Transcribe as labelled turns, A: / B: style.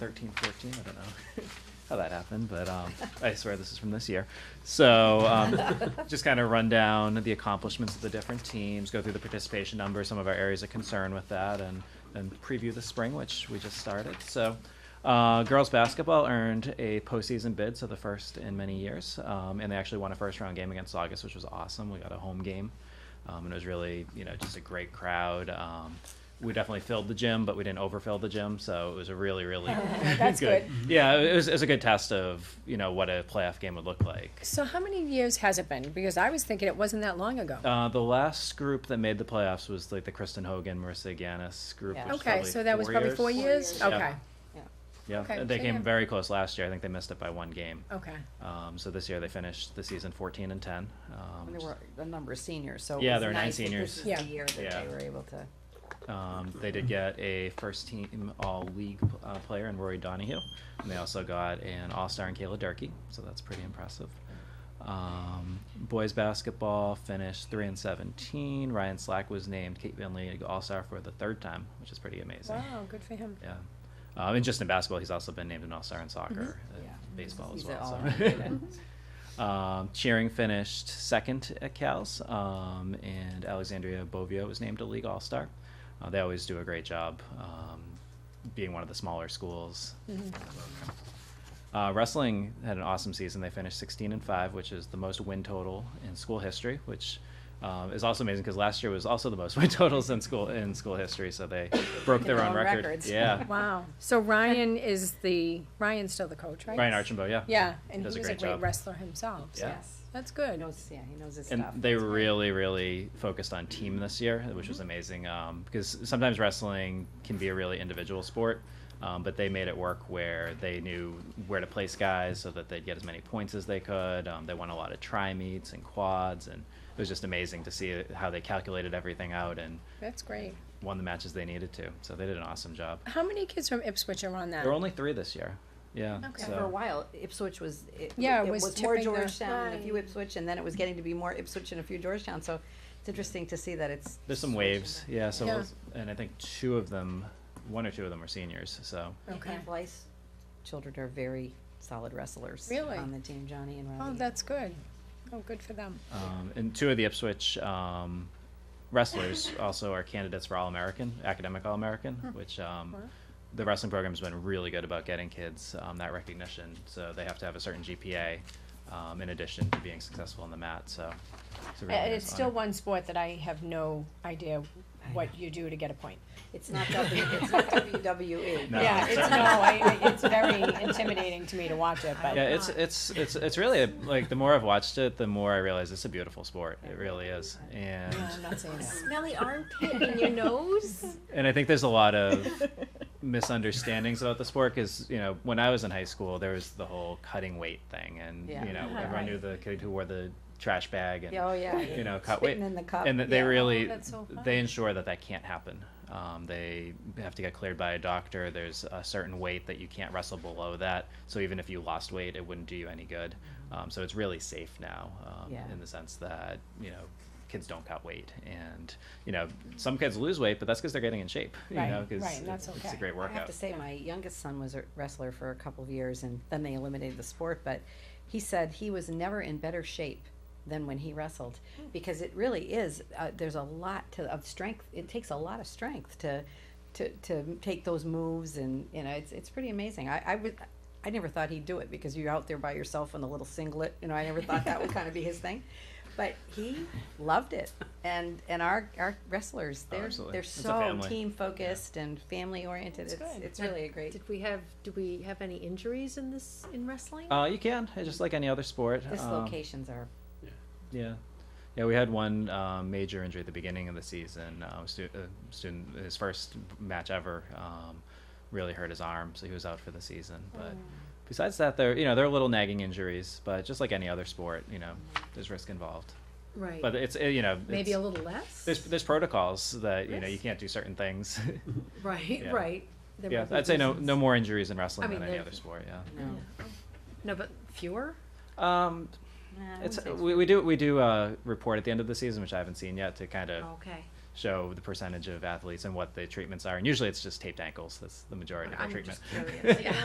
A: 13, 14, I don't know how that happened, but um, I swear this is from this year. So um, just kind of run down the accomplishments of the different teams, go through the participation numbers, some of our areas of concern with that, and then preview the spring, which we just started. So uh, girls basketball earned a postseason bid, so the first in many years, um, and they actually won a first round game against August, which was awesome. We got a home game um, and it was really you know just a great crowd. Um, we definitely filled the gym, but we didn't overfill the gym, so it was a really really
B: That's
A: Yeah, it was, it was a good test of you know what a playoff game would look like.
B: So how many years has it been? Because I was thinking it wasn't that long ago.
A: Uh, the last group that made the playoffs was like the Kristen Hogan, Marissa Ganis group.
C: Yeah.
A: which was
B: Okay,
A: probably
B: so that was probably four years?
C: Four
A: years, yeah.
B: Okay,
A: Yeah,
B: okay,
A: they
B: so
A: came
B: yeah. Oh.
A: very close last year. I think they missed it by one game.
B: okay.
A: Um, so this year they finished the season 14 and 10. Um,
C: And there were a number of seniors, so it
A: Yeah,
C: was
A: there were nine
C: nice that
A: seniors.
C: This is
B: Yeah.
C: the year that
A: Yeah.
C: they were able to.
A: Um, they did get a first team all league uh, player in Rory Donahue. And they also got an all star in Kayla Durkee, so that's pretty impressive. Um, boys basketball finished 3 and 17. Ryan Slack was named Kate Vinley all star for the third time, which is pretty amazing.
B: Wow, good for him.
A: Yeah. Um, and just in basketball, he's also been named an all star in soccer, and
C: Yeah.
A: baseball
C: He's
A: as well.
C: all
A: so.
C: around good.
A: Um, cheering finished second at Cal's, um, and Alexandria Bovio was named a league all star. Uh, they always do a great job, um, being one of the smaller schools.
B: Mm-hmm.
A: Uh, wrestling had an awesome season. They finished 16 and 5, which is the most win total in school history, which um, is also amazing because last year was also the most win totals in school in school history. So they broke their
C: Their
A: own
C: own
A: record.
C: records.
A: Yeah,
B: Wow. So Ryan is the, Ryan's still the coach, right?
A: Ryan Archambault. Yeah,
B: Yeah, and he
A: Does
B: was
A: a
B: a
A: great
B: great
A: job.
B: wrestler himself, so
A: Yeah.
C: Yes.
B: that's
C: He
B: good.
C: knows, yeah, he knows his
A: and
C: stuff.
A: they really really focused on team this year which
C: Mm-hmm.
A: was amazing um, because sometimes wrestling can be a really individual sport um, but they made it work where they knew where to place guys so that they'd get as many points as they could um, they won a lot of tri meets and quads and it was just amazing to see how they calculated everything out and
B: That's great.
A: won the matches they needed to so they did an awesome job
B: How many kids from Ipswich are on that?
A: there were only three this year yeah
B: Okay.
C: And For a
A: so
C: while, Ipswich was, it,
B: Yeah, it
C: it
B: was
C: was more
B: tipping the-
C: Georgetown, and a few
B: Right.
C: Ipswich, and then it was getting to be more Ipswich and a few Georgetown, so it's interesting to see that it's.
A: there's some
C: switching
A: waves
C: back.
A: yeah so
B: Yeah.
A: we'll- and i think two of them one or two of them were seniors so
B: Okay.
C: And Blythe's children are very solid wrestlers.
B: Really?
C: On the team, Johnny and Ronnie.
B: Oh, that's good. Oh, good for them.
A: Um, and two of the Ipswich um, wrestlers also are candidates for All American, academic All American,
B: Hmm.
A: which um, the wrestling program's been really good about getting kids um, that recognition. So they have to have a certain GPA um, in addition to being successful on the mat. So it's, a really
B: And
A: nice
B: it's still
A: honor.
B: one sport that I have no idea what you do to get a point.
C: It's not W, E. it's not WWE.
A: No,
B: Yeah, it's
A: certainly
B: no,
A: not.
B: I, I- it's very intimidating to me to watch it, but.
A: Yeah, it's it's it's it's really a, like the more I've watched it, the more I realize it's a beautiful sport. It really is, and
B: No, I'm not saying that.
D: smelly armpit in your nose.
A: and I think there's a lot of misunderstandings about the sport because you know when I was in high school there was the whole cutting weight thing and
C: Yeah.
A: you know
C: Uh-huh.
A: everyone knew the kid who wore the trash bag and
C: Yeah, Oh, yeah.
A: you know cut weight
C: Spitting in the cup.
A: and that they
C: yeah.
A: really
B: Oh, that's so
A: they
B: fun.
A: ensure that that can't happen. Um, they have to get cleared by a doctor. There's a certain weight that you can't wrestle below that. So even if you lost weight, it wouldn't do you any good. Um, so it's really safe now um,
C: Mm-hmm. Yeah.
A: in the sense that you know kids don't cut weight, and you know some kids lose weight, but that's because they're getting in shape. You
B: Right,
A: know, 'cause
B: right, and that's
A: it- it's a
B: okay.
A: great
C: I have
A: workout.
C: to say, my youngest son was a wrestler for a couple of years, and then they eliminated the sport. But he said he was never in better shape than when he wrestled, because it really is. Uh, there's a lot to, of strength. It takes a lot of strength to, to, to take those moves, and you know, it's it's pretty amazing. I, I would. I never thought he'd do it because you're out there by yourself in a little singlet. You know, I never thought that would kind of be his thing, but he loved it. And and our our wrestlers, they're
A: Oh, absolutely.
C: they're
A: It's a
C: so
A: family.
C: team focused and family oriented. It's
B: good.
C: it's really a great.
D: Did we have, do we have any injuries in this, in wrestling?
A: Uh, you can it's just like any other sport. um,
C: Dislocations are
A: Yeah, yeah. We had one um, major injury at the beginning of the season. Uh, stu- uh, student, his first match ever, um, really hurt his arm, so he was out for the season. But
D: Mm.
A: besides that, there you know there are little nagging injuries, but just like any other sport, you know, there's risk involved.
D: Right.
A: But it's uh, you know
D: Maybe
A: it's-
D: a little less?
A: There's there's protocols that you know you
D: Yes.
A: can't do certain things.
D: Right,
A: yeah.
D: right. There
A: yeah,
D: might be
A: I'd say no
D: reasons.
A: no more injuries in wrestling
D: I mean,
A: than any
D: there-
A: other sport. Yeah.
C: no.
D: No, but fewer?
A: Um,
C: Nah, I wouldn't
A: it's
C: say
D: Oh.
A: we, we do we do uh, report at the end of the season, which I haven't seen yet, to kind of
D: Okay.
A: show the percentage of athletes and what the treatments are. And usually it's just taped ankles. That's the majority of the
D: I'm
A: treatment.
D: just curious, yeah.